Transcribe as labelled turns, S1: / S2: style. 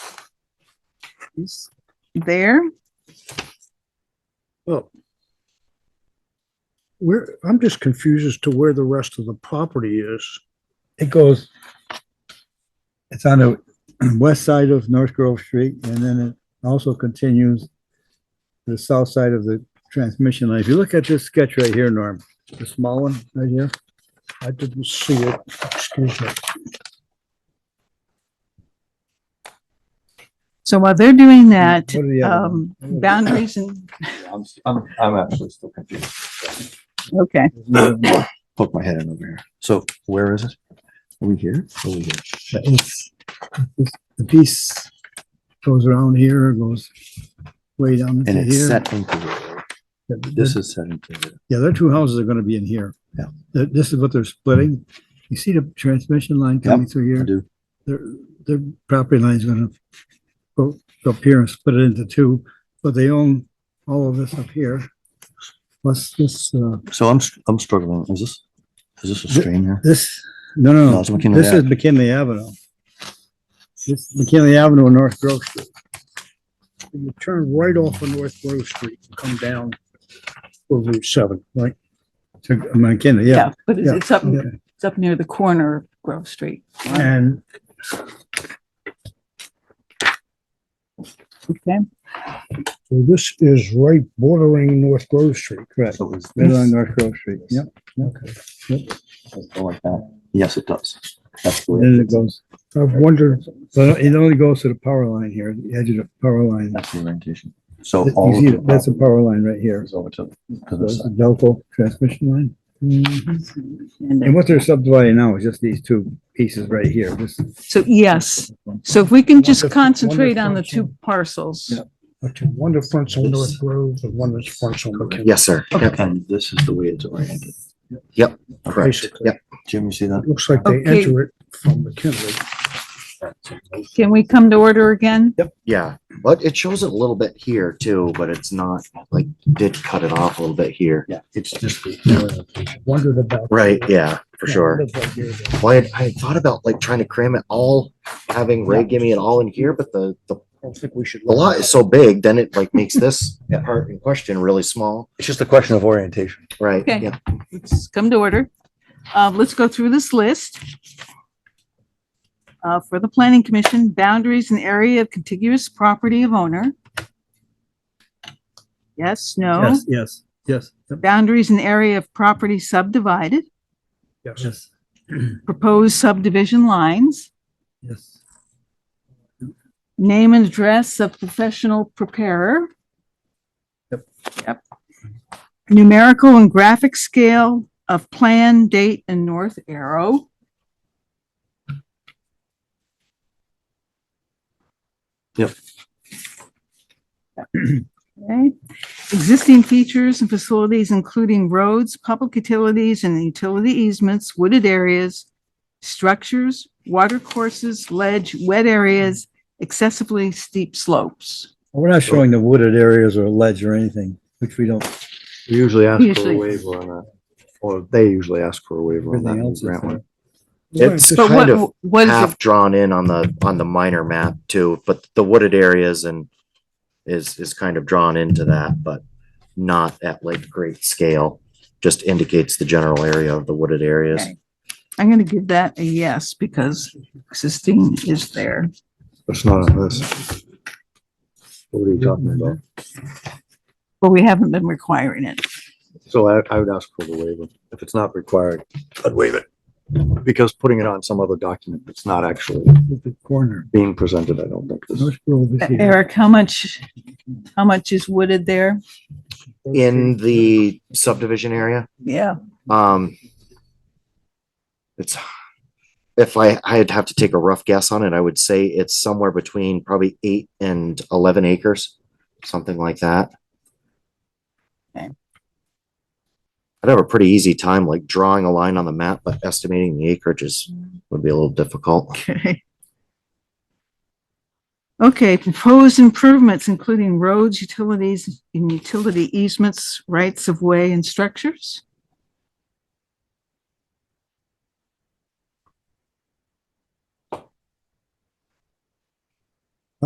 S1: is there.
S2: Oh. Where, I'm just confused as to where the rest of the property is.
S3: It goes, it's on the west side of North Grove Street, and then it also continues to the south side of the transmission line. If you look at this sketch right here, Norm, the small one right here,
S2: I didn't see it, excuse me.
S1: So while they're doing that,
S3: What are the other
S1: um, boundaries and,
S4: I'm, I'm, I'm actually still confused.
S1: okay,
S4: Poke my head in over here. So where is it? Are we here? Are we here?
S3: It's- it's- the piece goes around here, goes way down
S4: And
S3: into
S4: it's
S3: here.
S4: set into the, road. this
S3: This
S4: is set into the,
S3: yeah, their two houses are gonna be in here.
S4: Yeah.
S3: Th- This is what they're splitting. You see the transmission line coming through
S4: I
S3: here?
S4: do.
S3: their, their property line is gonna go go up here and split it into two, but they own all of this up here. Plus this, uh,
S4: So I'm, str- I'm struggling. Is this, is this a
S3: Th-
S4: stream here?
S3: this, no, no,
S4: No,
S3: no,
S4: it's McKinley
S3: this is McKinley Avenue. This McKinley Avenue and North Grove Street.
S2: You turn right off of North Grove Street and come down for Route seven, right?
S3: to McKinley, yeah.
S1: yeah, but it's
S3: yeah,
S1: it's up,
S3: yeah.
S1: it's up near the corner of Grove Street.
S3: And
S1: Okay,
S2: So this is right bordering North Grove Street.
S3: correct,
S4: So is
S3: right
S4: this-
S3: along North Grove Street, yep. Okay.
S4: go like that? Yes, it does. That's the way.
S3: Then it goes,
S2: I've wondered,
S3: but it only goes to the power line here, the edge of the power line.
S4: That's the orientation. So Oh, all
S3: You
S4: of
S3: see,
S4: the
S3: it, that's a
S4: property
S3: power line right here.
S4: is over to to this
S3: Goes to
S4: side.
S3: Delco transmission line.
S1: and
S3: Mm-hmm. And what they're subdividing now is just these two pieces right here. This,
S1: So, yes, so if we can just
S2: Wonderful,
S1: concentrate on the
S2: wonderful.
S1: two parcels.
S3: Yeah.
S2: okay, one that fronts on North Grove and one that fronts on McKinley.
S5: Yes, sir. Yep,
S4: And this is the way it's oriented.
S5: correct.
S2: Basically.
S5: Yep,
S4: Jim, you see that?
S2: Looks like they
S1: Okay.
S2: enter it from McKinley.
S1: Can we come to order again?
S5: yeah. But it shows it a little bit here too, but it's not like did cut it off a little bit here.
S2: It's just, uh, wondered about.
S5: Right, yeah, for sure.
S2: Wondered about here.
S5: Well, I had, I had thought about like trying to cram it all, having Ray give me it all in here, but the, the,
S2: I don't think we should.
S5: the lot is so big, then it like makes this
S4: Yeah.
S5: part in question really small,
S4: It's just a question of orientation.
S5: right?
S1: Okay.
S5: Yeah.
S1: Let's come to order. Uh, let's go through this list. Uh, for the planning commission, boundaries and area of contiguous property of owner. Yes, no?
S3: yes, yes, yes, yep,
S1: Boundaries and area of property subdivided,
S2: Yes.
S3: yes,
S1: proposed subdivision lines,
S3: yes.
S1: name and address of professional preparer.
S3: Yep.
S1: Yep. Numerical and graphic scale of plan, date, and north arrow.
S4: Yep.
S1: Okay, existing features and facilities, including roads, public utilities and utility easements, wooded areas, structures, water courses, ledge, wet areas, excessively steep slopes.
S3: We're not showing the wooded areas or ledge or anything, which we don't,
S4: We usually ask
S1: Usually.
S4: waiver on that, or they usually ask for a waiver
S3: everything else is there.
S5: It's
S1: But
S5: kind of
S1: what, what is,
S5: half
S1: the-
S5: drawn in on the, on the minor map too, but the wooded areas and is, is kind of drawn into that, but not at like great scale. Just indicates the general area of the wooded areas.
S1: Okay. I'm going to give that a yes because existing is there.
S4: It's not on this. What are you talking about?
S1: But we haven't been requiring it.
S4: So I, I would ask for the waiver. If it's not required, I'd waive it. Because putting it on some other document that's not actually
S3: Look at the corner.
S4: being presented, I don't think this.
S3: North Grove is here.
S1: Eric, how much, how much is wooded there?
S5: in the subdivision area.
S1: Yeah,
S5: Um, it's, if I, I'd have to take a rough guess on it, I would say it's somewhere between probably eight and 11 acres, something like that.
S1: Okay.
S5: I'd have a pretty easy time like drawing a line on the map, but estimating the acreage is, would be a little difficult.
S1: okay. Okay, proposed improvements including roads, utilities, and utility easements, rights of way and structures.